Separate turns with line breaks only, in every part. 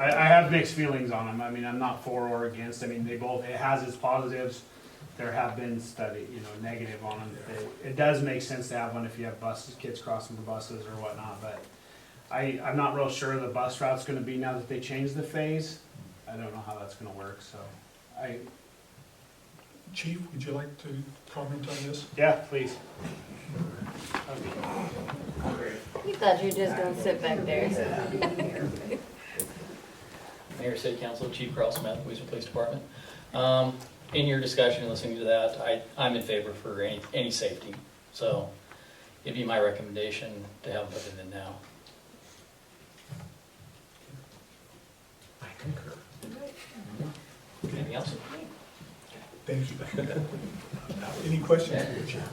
I, I have mixed feelings on them. I mean, I'm not for or against. I mean, they both, it has its positives. There have been study, you know, negative on them. It, it does make sense to have one if you have buses, kids crossing the buses or whatnot, but I, I'm not real sure the bus route's gonna be now that they changed the phase. I don't know how that's gonna work, so I,
Chief, would you like to comment on this?
yeah, please.
You thought you were just gonna sit back there.
Mayor, City Council, Chief Carl Smith, Louisville Police Department. Um, In your discussion, and listening to that, I, I'm in favor for any, any safety. So it'd be my recommendation to have them put it in now.
I concur.
Anything else?
Thank you. Uh, Any questions? for the chief?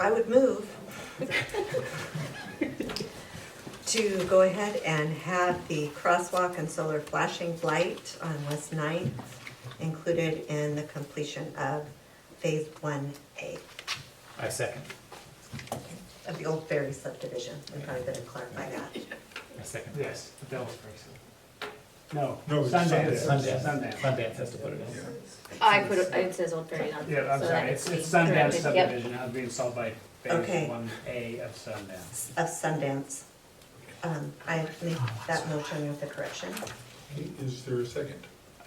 I would move to go ahead and have the crosswalk and solar flashing light on West Ninth included in the completion of Phase One A
I second,
of the old ferry subdivision. We probably better clarify that.
I second.
Yes, the Devil's Basin. No,
No, it's
Sundance,
Sundance.
Sundance.
Sundance has to put it in.
I put, it it says Old Prairie on. it,
Yeah, I'm
so
sorry,
that
it's,
needs
it's
to be
Sundance
corrected. Yep.
subdivision, now being sold by
Okay.
Phase One A of Sundance.
Of Sundance. Um, I make that motion with the correction.
Okay, Is there a second?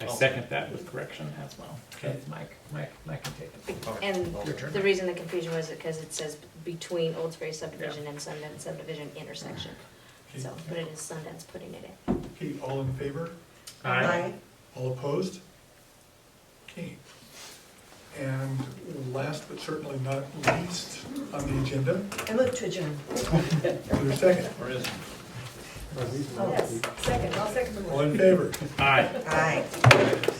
I second that with correction as well. Okay, Mike, Mike, Mike can take it.
And
Your turn.
the reason the confusion was because it says between Old Prairie subdivision and Sundance subdivision intersection.
Okay,
So, but it is Sundance putting it in.
Okay, all in favor?
Aye.
All opposed? Okay. And last but certainly not least on the agenda,
Aye. I move to adjourn.
is there a second?
Yes, second, I'll second the
All in favor?
Aye.
Aye.